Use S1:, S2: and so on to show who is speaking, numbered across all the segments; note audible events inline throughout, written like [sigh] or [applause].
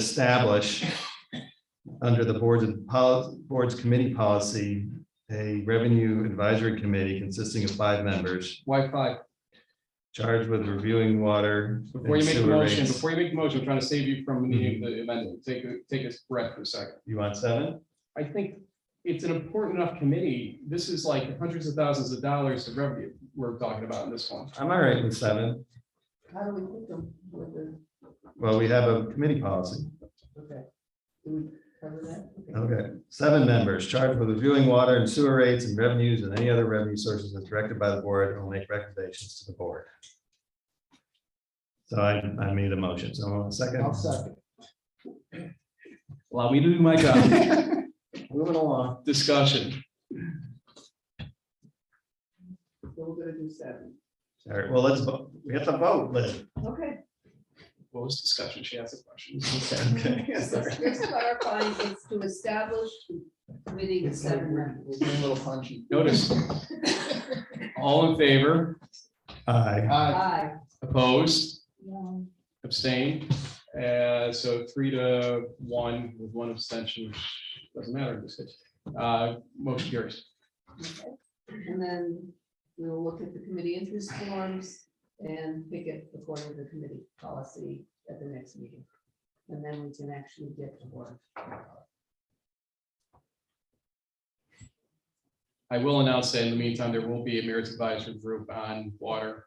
S1: establish under the boards and pol- boards committee policy, a revenue advisory committee consisting of five members
S2: Why five?
S1: charged with reviewing water. and
S2: Before you make a
S1: sewer
S2: motion,
S1: rates. Mm-hmm.
S2: before you make a motion, I'm trying to save you from needing the amendment. Take, a take a breath for a second.
S1: You want seven?
S2: I think it's an important enough committee. This is like hundreds of thousands of dollars of revenue we're talking about in this one.
S1: I'm all right with seven.
S3: How do we put them with the,
S1: Well, we have a committee policy.
S3: okay? Do we cover that? Okay.
S1: Okay, seven members charged with reviewing water and sewer rates and revenues and any other revenue sources as directed by the board and will make recommendations to the board. So I, I made a motion, so I'm on second.
S3: I'll second.
S2: Allow me to do my job.
S1: Moving along.
S2: Discussion.
S3: So we're gonna do seven.
S1: All right, well, let's, vote. we have to vote, Lynn.
S3: Okay.
S2: What was discussion? She asked a question.
S3: [laughs]
S1: Okay, sorry.
S3: Just clarifying, it's to establish the committee of seven members. [laughs]
S2: Notice, all in favor,
S1: Aye.
S3: Aye.
S2: opposed,
S3: No.
S2: abstained. Uh, so three to one with one abstention, which doesn't matter. in this case. Uh, motion carries.
S3: Okay. And then we'll look at the committee interest forms and pick it according to the committee policy at the next meeting. And then we can actually get to work.
S2: I will announce that in the meantime, there will be a merits advisory group on water.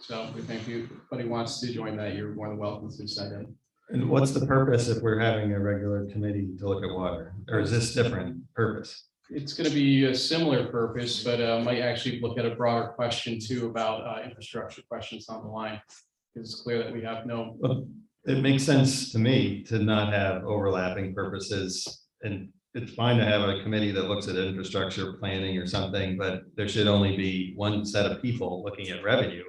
S2: So we thank you. If anybody wants to join that, you're more than welcome to send in.
S1: And what's the purpose if we're having a regular committee to look at water, or is this different purpose?
S2: It's going to be a similar purpose, but uh, might actually look at a broader question too about uh, infrastructure questions on the line. Because it's clear that we have no,
S1: Well, It makes sense to me to not have overlapping purposes. And it's fine to have a committee that looks at infrastructure planning or something, but there should only be one set of people looking at revenue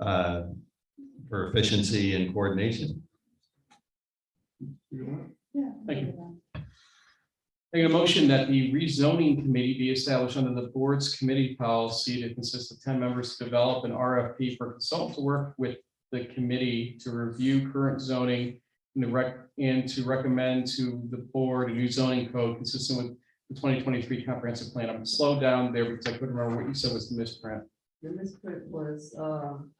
S1: uh, for efficiency and coordination.
S3: Yeah.
S2: Thank you. Make a motion that the rezoning committee be established under the board's committee policy to consist of ten members to develop an RFP for consultant work with the committee to review current zoning and to rec, and to recommend to the board a new zoning code consistent with the twenty twenty-three comprehensive plan. I'm slowed down there because I couldn't remember what you said was the misprint.
S3: The misprint was, um.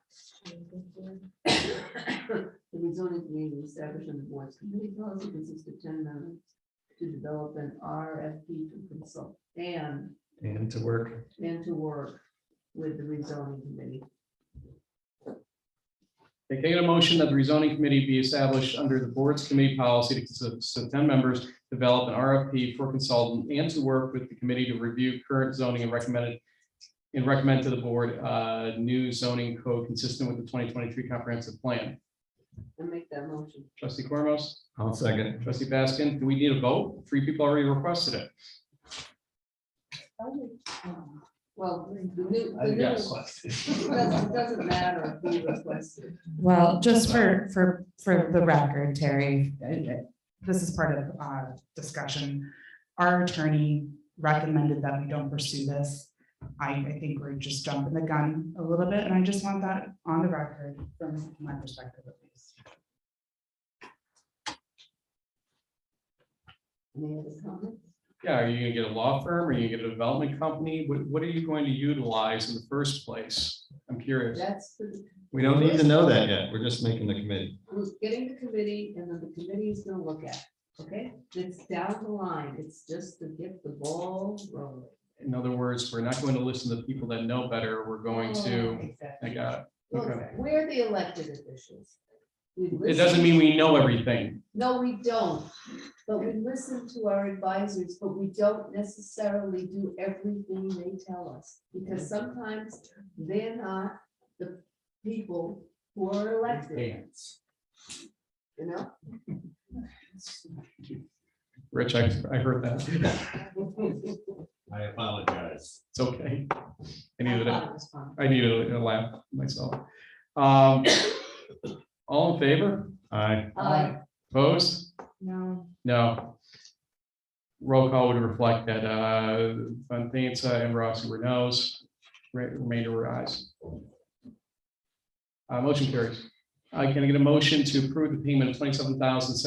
S3: The rezoning committee established on the board's committee policy consists of ten members to develop an RFP to consult and,
S1: And to work,
S3: and to work with the rezoning committee.
S2: They take a motion that the rezoning committee be established under the board's committee policy to consist of ten members, develop an RFP for consultant and to work with the committee to review current zoning and recommended and recommend to the board uh new zoning code consistent with the twenty twenty-three comprehensive plan.
S3: And make that motion.
S2: Trustee Cormos,
S1: I'll second.
S2: trustee Baskin, do we need a vote? Three people already requested it.
S3: Well, the new, the new.
S2: Yes.
S3: It doesn't, it doesn't matter who requested.
S4: Well, just for, for, for the record, Terry, uh, uh, this is part of uh discussion. Our attorney recommended that we don't pursue this. I, I think we're just jumping the gun a little bit, and I just want that on the record from my perspective at least.
S3: Any other comments?
S2: Yeah, are you gonna get a law firm? Are you gonna get a development company? What what are you going to utilize in the first place? I'm curious.
S3: That's the,
S1: We don't need to know that yet. We're just making the committee.
S3: who's getting the committee and then the committee is gonna look at, it, okay? It's down the line, it's just to get the ball rolling.
S2: In other words, we're not going to listen to the people that know better. We're going to, I
S3: Oh, Exactly.
S2: got,
S3: Look,
S2: okay.
S3: We're the elected officials. We
S2: it
S3: listen-
S2: doesn't mean we know everything.
S3: No, we don't, but we listen to our advisors, but we don't necessarily do everything they tell us. Because sometimes they're not the people who are elected, you know?
S2: Rich, I, I heard that.
S3: I
S1: I apologize.
S2: It's okay. I needed it.
S3: thought it was fun.
S2: I needed a laugh myself. Um, all in favor?
S1: Aye.
S3: Uh,
S2: Opposed?
S4: No.
S2: No. Roll call would reflect that, uh, Van Tantza and Rossi were no's, re- remainder were ayes. Uh, motion carries. I can I get a motion to approve the payment of twenty-seven thousand seven